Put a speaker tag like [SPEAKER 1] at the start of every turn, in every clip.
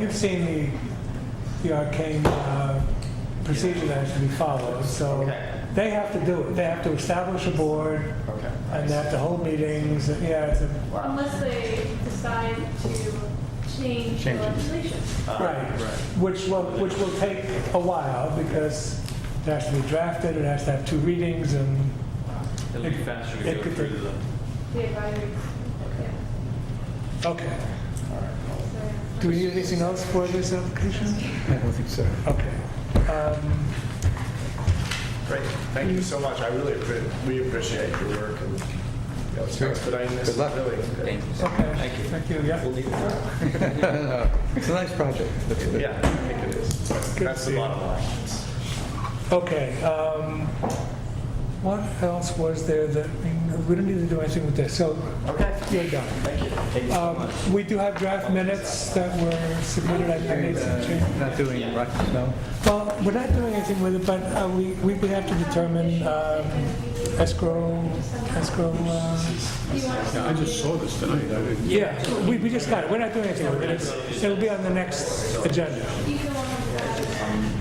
[SPEAKER 1] you've seen the, the arcane uh, procedure that has to be followed, so
[SPEAKER 2] Okay.
[SPEAKER 1] they have to do it. They have to establish a board,
[SPEAKER 2] Okay.
[SPEAKER 1] and they have to hold meetings, and yeah, it's a,
[SPEAKER 2] Wow.
[SPEAKER 3] Unless they decide to change the
[SPEAKER 2] Change it.
[SPEAKER 3] legislation.
[SPEAKER 2] Uh,
[SPEAKER 1] right.
[SPEAKER 2] Right.
[SPEAKER 1] Which will, which will take a while, because it has to be drafted, it has to have two readings, and,
[SPEAKER 4] It'll be faster
[SPEAKER 1] It
[SPEAKER 4] to go
[SPEAKER 1] could
[SPEAKER 4] through
[SPEAKER 1] take-
[SPEAKER 4] the,
[SPEAKER 3] The advisory. yeah.
[SPEAKER 1] okay.
[SPEAKER 3] So-
[SPEAKER 1] Do we need anything else for this application?
[SPEAKER 5] I don't think so.
[SPEAKER 1] Okay. Um,
[SPEAKER 2] Great. Thank you so much. I really appre- we appreciate your work and you know,
[SPEAKER 5] Sure.
[SPEAKER 2] expediting this.
[SPEAKER 5] Good luck.
[SPEAKER 2] Really. Good.
[SPEAKER 4] thank you.
[SPEAKER 1] Okay.
[SPEAKER 4] Thank you.
[SPEAKER 1] Thank you, yeah.
[SPEAKER 2] We'll need it.
[SPEAKER 5] It's a nice project. That's what it-
[SPEAKER 2] Yeah, I think it is.
[SPEAKER 1] Good
[SPEAKER 2] That's
[SPEAKER 1] to
[SPEAKER 2] the
[SPEAKER 1] see
[SPEAKER 2] bottom line.
[SPEAKER 1] Okay, um, what else was there that, we don't need to do anything with this, so
[SPEAKER 2] Okay.
[SPEAKER 1] you're done.
[SPEAKER 2] Thank you. Thank you so
[SPEAKER 1] Um,
[SPEAKER 2] much.
[SPEAKER 1] we do have draft minutes that were submitted, I I made some changes.
[SPEAKER 5] Not doing rock and snow.
[SPEAKER 1] Well, we're not doing anything with it, but uh, we, we would have to
[SPEAKER 6] uh,
[SPEAKER 1] determine um, escrow, escrow, uh,
[SPEAKER 3] Do you want to-
[SPEAKER 7] I just saw this tonight. I didn't.
[SPEAKER 1] yeah, we, we just got it, we're not doing anything with it, It's- it'll be on the next agenda.
[SPEAKER 3] you can want to-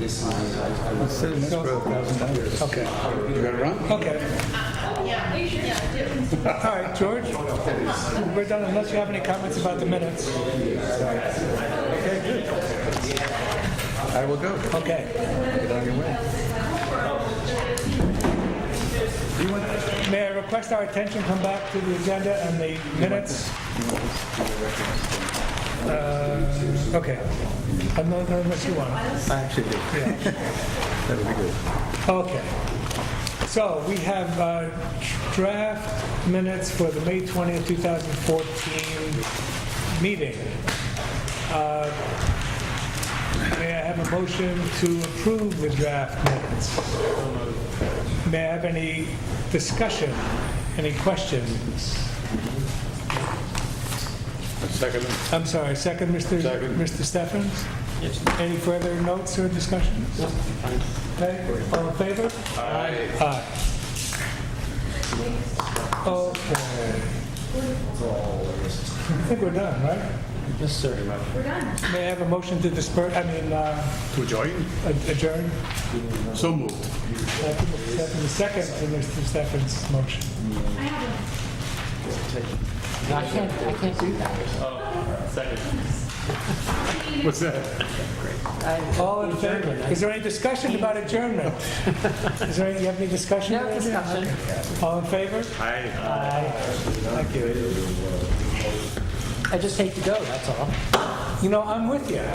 [SPEAKER 5] Instead of escrow, $1,000.
[SPEAKER 1] Okay,
[SPEAKER 7] You got it wrong?
[SPEAKER 1] okay.
[SPEAKER 8] Yeah, you should, yeah, do.
[SPEAKER 1] All right, George, we're done unless you have any comments about the minutes.
[SPEAKER 5] I will go.
[SPEAKER 1] Okay.
[SPEAKER 5] Get on your way.
[SPEAKER 1] May I request our attention come back to the agenda and the minutes? Uh, Okay. Uh, no, no, Unless you want.
[SPEAKER 5] I actually do. That would be good.
[SPEAKER 1] Okay. So we have uh, draft minutes for the May 20th, 2014 meeting. Uh, May I have a motion to approve the draft minutes? May I have any discussion, any questions?
[SPEAKER 7] Second.
[SPEAKER 1] I'm sorry, second, Mr.
[SPEAKER 7] Second.
[SPEAKER 1] Mr. Stephens? Yes. Any further notes or discussions? Okay, all in favor? Aye. Aye. Okay. I think we're done, right? Yes, sir. We're done. May I have a motion to disperse, I mean, uh,
[SPEAKER 7] To join?
[SPEAKER 1] adjourn?
[SPEAKER 7] So moved.
[SPEAKER 1] Second, second to Mr. Stephens' motion.
[SPEAKER 3] I have one.
[SPEAKER 6] I can't, I can't do that.
[SPEAKER 7] Oh, What's that?
[SPEAKER 6] I-
[SPEAKER 1] All in favor? Is there any discussion about adjournment? Is there, any? you have any discussion?
[SPEAKER 6] No discussion.
[SPEAKER 1] All in favor?
[SPEAKER 7] Aye.
[SPEAKER 6] I just hate to go, that's all.
[SPEAKER 1] You know, I'm with you.